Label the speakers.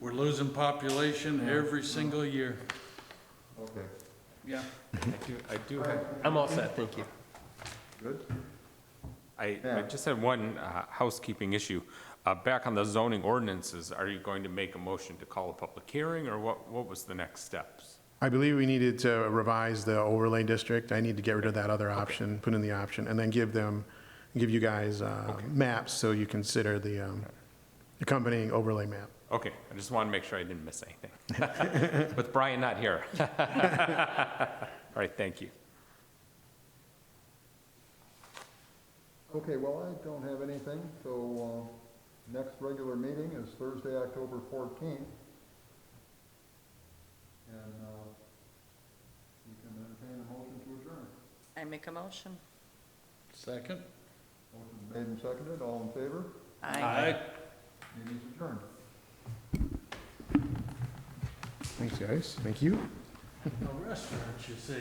Speaker 1: We're losing population every single year.
Speaker 2: Okay,
Speaker 1: Yeah.
Speaker 3: I do, I do have. I'm all set, thank you.
Speaker 2: good.
Speaker 3: I, I
Speaker 2: Yeah.
Speaker 3: just had one uh, housekeeping issue. Uh, Back on the zoning ordinances, are you going to make a motion to call a public hearing, or what, what was the next steps?
Speaker 4: I believe we needed to revise the overlay district. I need to get rid of that other option, put in the option, and then give them, um, give you guys uh, maps so you consider the um, accompanying overlay map.
Speaker 3: Okay, I just want to make sure I didn't miss anything. With Brian not here. All right, thank you.
Speaker 2: Okay, well, I don't have anything, so, uh, next regular meeting is Thursday, October fourteenth. And, uh, you can entertain a motion to adjourn.
Speaker 5: I make a motion.
Speaker 1: Second?
Speaker 2: Motion made and seconded, all in favor?
Speaker 5: Aye.
Speaker 2: Meeting is adjourned.
Speaker 4: Thanks, guys. Thank you.
Speaker 1: No restaurants, you see.